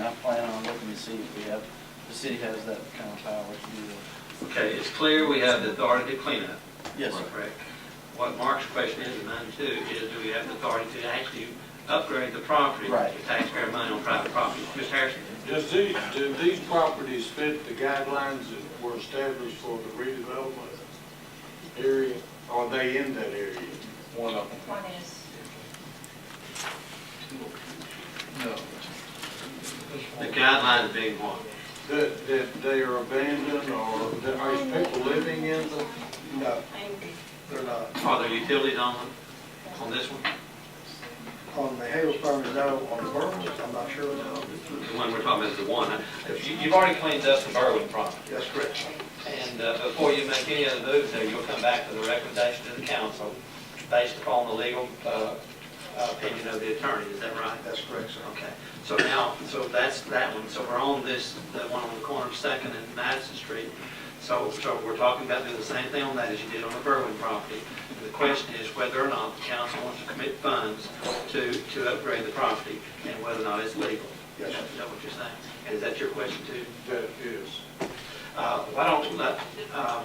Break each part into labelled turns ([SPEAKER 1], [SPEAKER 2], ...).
[SPEAKER 1] I plan on looking to see if we have, the city has that kind of power to do that.
[SPEAKER 2] Okay, it's clear we have the authority to clean up.
[SPEAKER 1] Yes, sir.
[SPEAKER 2] Correct. What Mark's question is, and mine too, is do we have the authority to actually upgrade the property?
[SPEAKER 1] Right.
[SPEAKER 2] with taxpayer money on private property. Mr. Harrison?
[SPEAKER 3] Does these, do these properties fit the guidelines that were established for the redevelopment area? Are they in that area?
[SPEAKER 1] One of them.
[SPEAKER 4] One is,
[SPEAKER 1] No.
[SPEAKER 2] The guidelines being what?
[SPEAKER 3] That, that they are abandoned or that are people living in them?
[SPEAKER 5] No,
[SPEAKER 4] angry.
[SPEAKER 5] they're not.
[SPEAKER 2] Are there utilities on, the- on this one?
[SPEAKER 5] On the Hale's, no, on the Burns, I'm not sure.
[SPEAKER 2] The one we're talking about is the one. huh? You- You've already cleaned up the Berwin property.
[SPEAKER 5] That's correct.
[SPEAKER 2] And uh, before you make any other moves there, you'll come back with a recommendation to the council based upon the legal uh, opinion of the attorney, is that right?
[SPEAKER 5] That's correct, sir.
[SPEAKER 2] Okay, so now, so that's that one, so we're on this, the one on the corner of Second and Madison Street. So, so we're talking about doing the same thing on that as you did on the Berwin property. And The question is whether or not the council wants to commit funds to, to upgrade the property and whether or not it's legal.
[SPEAKER 5] Yes,
[SPEAKER 2] Is
[SPEAKER 5] sir.
[SPEAKER 2] that what you're saying? And is that your question too?
[SPEAKER 3] That is.
[SPEAKER 2] Uh, Why don't, we let, uh,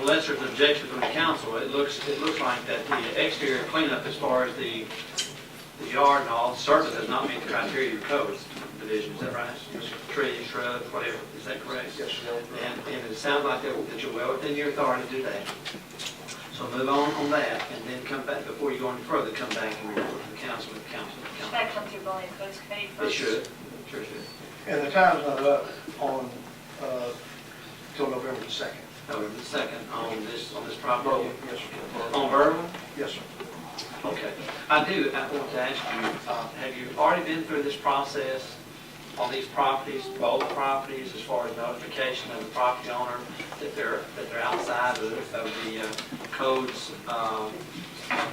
[SPEAKER 2] unless there's an objection from the council, it looks, it looks like that the exterior cleanup as far as the, the yard and all, certainly does not meet the criteria of code division, is that right? Trees, shrubs, whatever, is that correct?
[SPEAKER 5] Yes, sir.
[SPEAKER 2] And, and it sounds like that that you're well within your authority to do that. So move on on that, and then come back, before you go any further, come back and report to the council, and council, and
[SPEAKER 4] Should
[SPEAKER 2] council.
[SPEAKER 4] that come through building and codes committee
[SPEAKER 2] It
[SPEAKER 4] first?
[SPEAKER 2] should, sure should,
[SPEAKER 5] And the time's not up on, uh, till November the second.
[SPEAKER 2] November the second on this, on this property.
[SPEAKER 5] Yes, sir.
[SPEAKER 2] On Berwin?
[SPEAKER 5] Yes, sir.
[SPEAKER 2] Okay, I do, I want to ask you, uh, have you already been through this process on these properties, both properties, as far as notification of the property owner that they're, that they're outside of the- of the uh, code's um,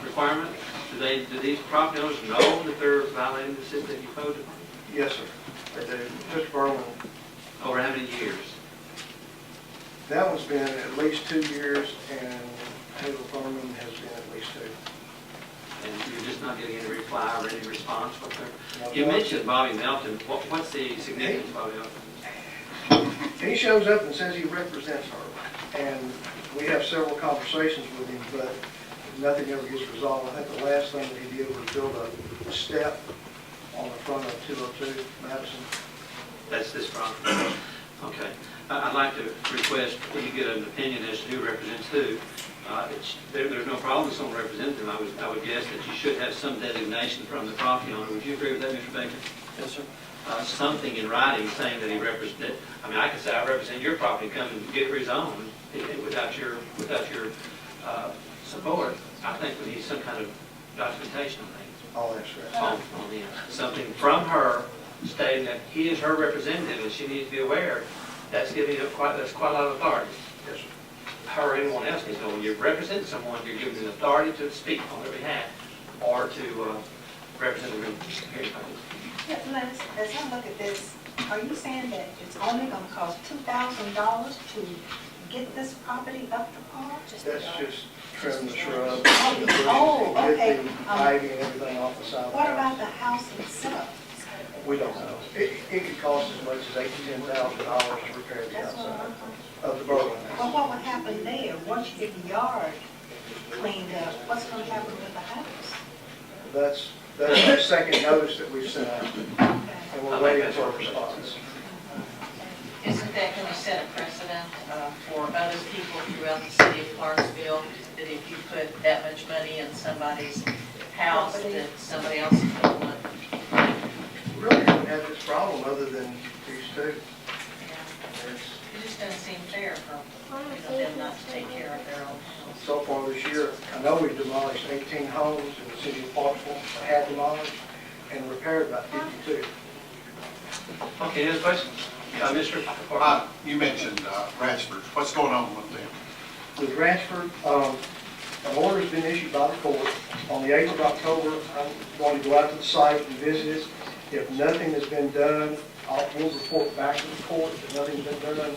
[SPEAKER 2] requirement? Do they, do these property owners know that they're violating the system you coded
[SPEAKER 5] Yes, sir. They do. Mr. Berlin,
[SPEAKER 2] over how many years?
[SPEAKER 5] that one's been at least two years, and Hale Berman has been at least two.
[SPEAKER 2] And you're just not getting any reply or any response from them?
[SPEAKER 5] Now,
[SPEAKER 2] You mentioned Bobby Melton, What- what's the significance of Bobby Melton?
[SPEAKER 5] He shows up and says he represents her, and we have several conversations with him, but nothing ever gets resolved. I think the last thing that he did was build a step on the front of 202 Madison.
[SPEAKER 2] That's this property. Okay. I- I'd like to request that you get an opinion as to who represents who. Uh, it's- there- There's no problem with someone representing them. I would I would guess that you should have some designation from the property owner. Would you agree with that, Mr. Baker?
[SPEAKER 1] Yes, sir.
[SPEAKER 2] Uh, Something in writing saying that he represented, I mean, I could say, I represent your property, come and get his own i- i- without your, without your uh, support. I think we need some kind of documentation on that
[SPEAKER 5] I'll ask her.
[SPEAKER 2] on, on the, something from her stating that he is her representative and she needs to be aware, that's giving up quite, that's quite a lot of authority.
[SPEAKER 5] Yes, sir.
[SPEAKER 2] Her or anyone else needs to know, when you represent someone, you're giving them authority to speak on their behalf or to, uh, represent them. Here it comes.
[SPEAKER 6] Yeah, Lance, as I look at this, are you saying that it's only gonna cost two thousand dollars to get this property up to par?
[SPEAKER 4] Just the
[SPEAKER 5] That's
[SPEAKER 4] yard.
[SPEAKER 5] just trim the shrubs.
[SPEAKER 6] Oh,
[SPEAKER 5] the bushes,
[SPEAKER 6] oh,
[SPEAKER 5] and
[SPEAKER 6] okay.
[SPEAKER 5] Get the
[SPEAKER 6] Um,
[SPEAKER 5] ivy and everything off the side of the
[SPEAKER 6] What
[SPEAKER 5] house.
[SPEAKER 6] about the house itself?
[SPEAKER 5] We don't know. It, it could cost as much as eight to ten thousand dollars to repair the
[SPEAKER 6] That's Oh. what I'm
[SPEAKER 5] outside
[SPEAKER 6] wondering.
[SPEAKER 5] of the Berlin
[SPEAKER 6] Well,
[SPEAKER 5] house.
[SPEAKER 6] what would happen there, once you get the yard cleaned up, what's gonna happen with the house?
[SPEAKER 5] That's, that's the second notice that we've sent out,
[SPEAKER 6] Okay.
[SPEAKER 5] and we're waiting for a response.
[SPEAKER 7] Isn't that going to set a precedent uh, for other people throughout the city of Clarksville, that if you put that much money in somebody's house,
[SPEAKER 6] Property.
[SPEAKER 7] that somebody else is going to want?
[SPEAKER 5] Really don't have this problem other than these two.
[SPEAKER 7] It
[SPEAKER 5] It's-
[SPEAKER 7] just doesn't seem fair for you know, them not to take care of their own house.
[SPEAKER 5] So far this year, I know we've demolished 18 homes in the city of Parkville, had demolished, and repaired about 52.
[SPEAKER 2] Okay, any other questions? Uh, Mr.
[SPEAKER 8] Uh, You mentioned uh, Ratchford. What's going on with them?
[SPEAKER 5] With Ranchford, um, an order's been issued by the court. On the 8th of October, I'm going to go out to the site and visit it. If nothing has been done, I'll, we'll report back to the court that nothing's been done.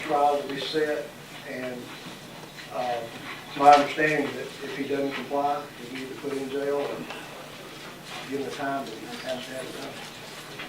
[SPEAKER 5] Trial will be set, and uh, it's my understanding that if he doesn't comply, he'll be either put in jail or given the time that he has to have it done.